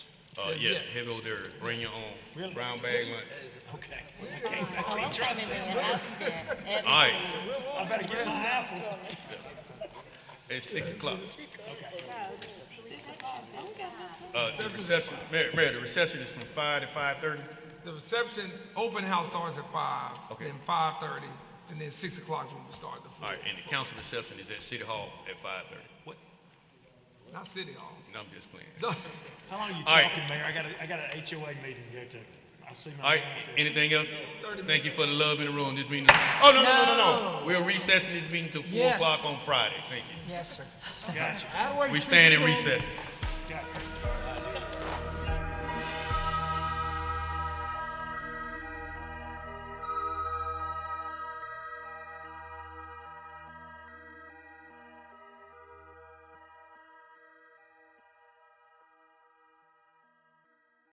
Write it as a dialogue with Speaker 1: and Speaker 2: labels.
Speaker 1: Uh, yes, heavy over there, bring your own brown bag lunch.
Speaker 2: Okay. I can't, I can't trust it.
Speaker 1: All right,
Speaker 2: I better give us an apple.
Speaker 1: it's six o'clock. Uh, the reception, Mayor, Mayor, the reception is from five to five-thirty?
Speaker 3: The reception, open house starts at five,
Speaker 1: Okay.
Speaker 3: then five thirty, and then six o'clock is when we start the
Speaker 1: All
Speaker 3: food.
Speaker 1: right, and the council reception is at City Hall at five-thirty. What?
Speaker 3: Not City Hall.
Speaker 1: No, I'm just playing.
Speaker 2: How long are you
Speaker 1: All right.
Speaker 2: talking, Mayor? I got a, I got an HOA meeting to go to. I'll see
Speaker 1: All
Speaker 2: my
Speaker 1: right,
Speaker 2: man out there.
Speaker 1: anything else? Thank you for the love in the room, this meeting, oh, no, no, no, no, no. We're recessing this meeting till four
Speaker 4: Yes.
Speaker 1: o'clock on Friday, thank you.
Speaker 4: Yes, sir.
Speaker 2: Gotcha,
Speaker 4: That works
Speaker 1: We
Speaker 4: for
Speaker 1: stand in
Speaker 4: me.
Speaker 1: recess.
Speaker 2: gotcha.